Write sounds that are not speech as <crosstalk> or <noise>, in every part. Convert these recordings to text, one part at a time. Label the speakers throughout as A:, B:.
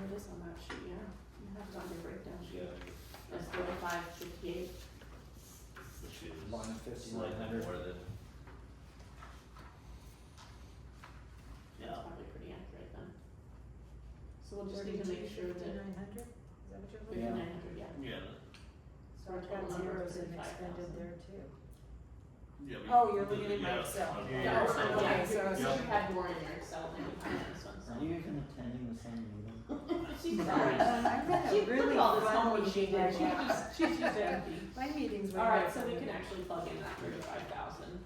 A: it is on that sheet, yeah, you have it on your breakdown
B: Yeah,
A: sheet, that's thirty-five fifty-eight,
B: which is
C: Line
B: slightly
C: fifty-nine hundred.
B: more than,
A: that's
B: yeah,
A: probably pretty accurate then. So we'll just need to make sure that
D: Thirty-two, fifty-nine hundred, is that what you're looking
C: Yeah.
A: thirty-nine hundred, yeah,
D: at?
B: yeah,
D: So I've got
A: Total number
D: zeros and
A: 35,000.
D: expended there too.
B: yeah. we-
D: Oh, you're looking at my
B: yeah,
D: Excel.
B: I'm-
A: Yeah,
D: Yeah,
B: yeah,
A: so
D: okay,
B: yeah.
A: yeah,
D: so I
A: so
D: was
A: you
D: thinking-
A: had more in your Excel than you had in this one, so.
C: Are you even attending the same meeting?
A: <laughs> She's
D: Um,
A: <laughs> sorry.
D: I've got
A: <laughs> She
D: a
A: put
D: really
A: all this
D: fun
A: homework she
D: meeting
A: did,
D: right
A: she
D: now.
A: just, she's just empty.
D: My meeting's right
A: Alright,
D: now.
A: so we can actually plug in that thirty-five thousand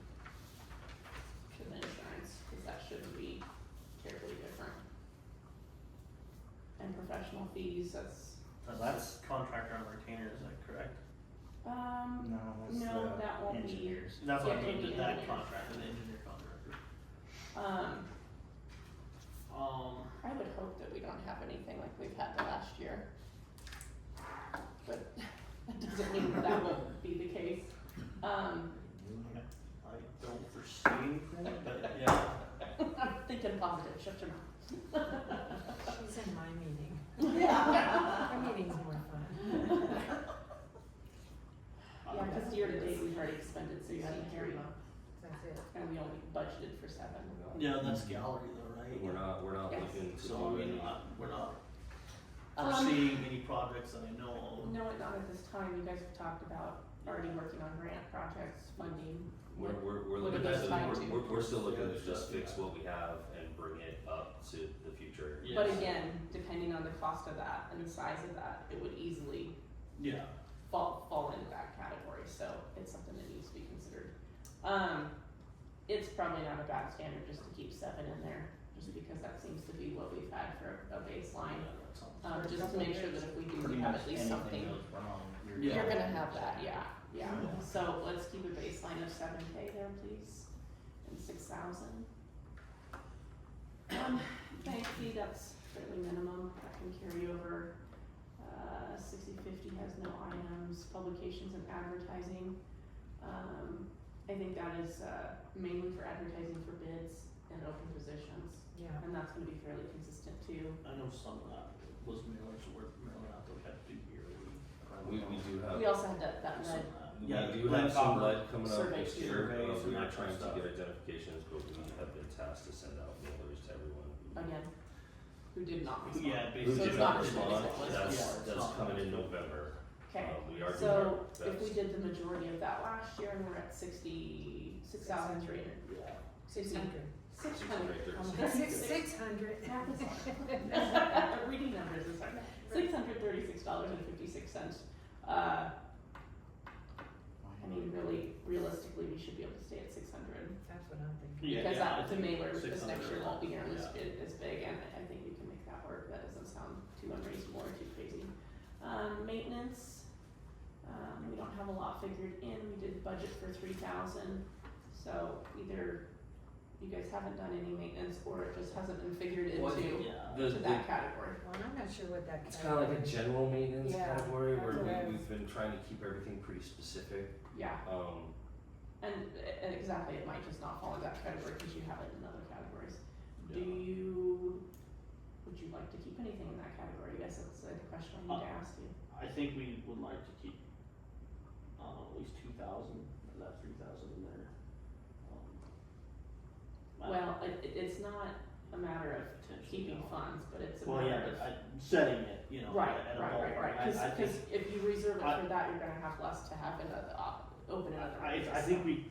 A: to the insurance, cause that shouldn't be terribly different. And professional fees, that's,
C: That's-
E: contractor on retainer, is that correct?
A: um,
C: No, that's the
A: No, that won't be.
C: engineers.
E: That's what I
A: Yeah,
E: mean,
A: maybe
E: did that
A: engineer.
E: contract, the engineer contractor.
A: um,
E: Um,
A: I would hope that we don't have anything like we've had the last year. But <laughs> that doesn't mean that that won't be the case, um, <laughs>
E: I don't foresee anything, but yeah,
A: I'm thinking positive, shut your mouth. <laughs>
D: She's in my meeting.
A: Yeah.
D: Her meeting's more fun.
A: Yeah, cause year to date, we've already expended sixty-three,
D: That's it.
A: and we only budgeted for seven.
E: yeah, that's gallery though, right?
B: We're not, we're not
A: Yes.
B: looking to
E: So,
B: do
E: I mean,
B: any,
E: not, we're not
A: Um,
E: foreseeing any projects that I know of.
A: No, not at this time, you guys have talked about already working on grant projects, funding.
B: we're, we're, we're
A: What
B: looking
A: are
B: to,
A: those tied
B: we're,
A: to?
B: we're, we're still looking
E: Yeah,
B: to just
E: yeah.
B: fix what we have and bring it up to the future.
E: Yeah.
A: But
E: Yes.
A: again, depending on the cost of that and the size of that, it would easily
E: Yeah,
A: fall, fall into that category, so it's something that needs to be considered. Um, it's probably not a bad standard just to keep seven in there, just because that seems to be what we've had for a
E: yeah,
A: baseline.
E: that sounds.
A: Um,
D: For a
A: just to
D: couple
A: make sure
D: years.
A: that if we
C: Pretty
A: do have
C: much
A: at least
C: anything
A: something,
C: goes wrong, you're.
E: Yeah.
A: you're
C: dead.
A: gonna have that, yeah, yeah.
C: Yeah.
A: So let's keep a baseline of seven K there, please, and six thousand. Um, bank fee, that's fairly minimum, that can carry over. Uh, sixty fifty has no items, publications and advertising. Um, I think that is, uh, mainly for advertising for bids and open positions,
D: Yeah.
A: and that's gonna be fairly consistent too.
E: I know some of that was mailers, were mailing out, they had to do yearly. I don't
B: We,
E: know.
B: we do
A: We
B: have,
A: also had that, that
E: Some
A: lead,
E: of that.
B: we
E: Yeah,
B: do
E: lead
B: have some
E: copper.
B: lead coming up
A: survey
B: next
A: too.
B: year,
E: Surveys
B: uh,
E: and that
B: we're not
E: kind
B: trying
E: of
B: to
E: stuff.
B: get identifications, but we have been tasked to send out mailers to everyone. who-
A: again, who did not respond.
E: Yeah,
A: So
B: Who
E: basically.
A: it's
B: did
A: not
B: not
A: as big as
B: respond,
A: it was
E: before.
B: that's,
E: It's
B: that's
E: not.
B: coming in November, um,
A: Okay,
B: we are doing our
A: so
B: best.
A: if we did the majority of that last year and we're at sixty, six thousand three hundred,
E: Yeah.
D: Six hundred.
A: six
B: Six
A: hundred.
B: hundred <laughs>
D: Um,
B: thirty-six.
A: Six- six-
D: Six, six hundred. <laughs>
A: <laughs> Reading numbers is hard. Six hundred thirty-six dollars and fifty-six cents. Uh, I mean, really, realistically, we should be able to stay at six hundred.
D: That's what I'm thinking.
E: Yeah,
A: Because
E: yeah, I
A: that, the
E: think
A: mailer this
E: 600
A: next year won't be nearly as
E: yeah.
A: big, as big, and I think we can make that work, that doesn't sound too unreasonable or too crazy. Um, maintenance, um, we don't have a lot figured in, we did budget for three thousand, so either you guys haven't done any maintenance, or it just hasn't been figured
B: Well, I
A: into,
E: Yeah.
B: The-
A: to
B: the-
A: that category.
D: Well, I'm not sure what that.
B: It's kind of like a
D: category-
B: general maintenance
D: Yeah,
B: category
D: that's
B: where
D: what I was-
B: we, we've been trying to keep everything pretty specific.
A: Yeah,
B: Um,
A: and, and exactly, it might just not fall in that category, cause you have it in other categories. Do
E: Yeah.
A: you, would you like to keep anything in that category? I guess that's the question I need
E: Uh,
A: to ask you.
E: I think we would like to keep, um, at least two thousand, of that three thousand in there. Um, I-
A: Well, it, it- it's not a matter of
E: potentially,
A: keeping
E: no.
A: funds, but it's a
E: Well, yeah,
A: matter of.
E: but I, setting it, you know,
A: Right,
E: at a
A: right, right,
E: ballpark,
A: right,
E: I, I
A: cause,
E: think.
A: 'cause if you reserve it
E: I-
A: for that, you're gonna have less to have in the, op- open in other
E: I,
A: areas.
E: I think we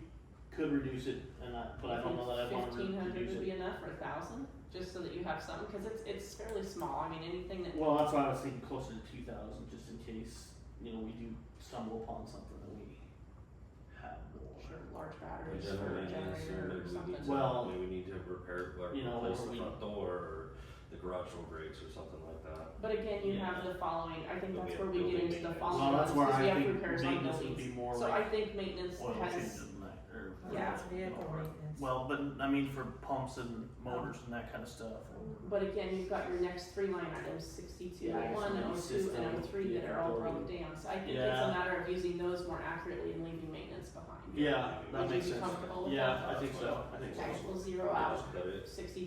E: could reduce it, and I, but I don't know that I'd wanna re-
A: Fifteen hundred
E: reduce
A: would
E: it.
A: be enough or a thousand, just so that you have some, cause it's, it's fairly small, I mean, anything that,
E: Well, that's why I was thinking closer to two thousand, just in case, you know, we do stumble upon something that we have more.
A: sure, large
B: we
A: batteries
B: general
A: or a
B: maintenance, or
A: generator or
B: maybe we need to,
A: something.
E: Well-
B: maybe we need to repair, like,
E: You know,
B: replace
E: or
B: the
E: we-
B: front door or the garage door breaks or something like that.
A: But again, you
E: Yeah.
A: have the following, I think
B: But we
A: that's
B: have
A: where we get
B: building
A: into the
B: maintenance.
A: following,
E: Well, that's where
A: because we
E: I
A: have
E: think
A: repairs on
E: maintenance would be
A: buildings,
E: more
A: so I
E: like
A: think maintenance
E: oil changes
A: has,
E: and that, or.
D: Well,
A: Yeah.
D: that's vehicle
E: or-
D: maintenance.
E: Well, but I mean for pumps and motors and that kind of stuff. or-
A: But again, you've got your next three line items, sixty-two,
E: Yeah,
A: oh one, oh two, and oh three, that are all broken down, so I think it's a
E: Yeah.
A: matter of using those more accurately and leaving maintenance behind.
E: Yeah,
B: Would
E: that
A: you
E: makes
A: be
E: sense.
A: comfortable with
E: Yeah,
B: that?
E: I think so, I think so.
A: Okay, we'll zero
B: Just
A: out
B: cut it.
A: sixty-two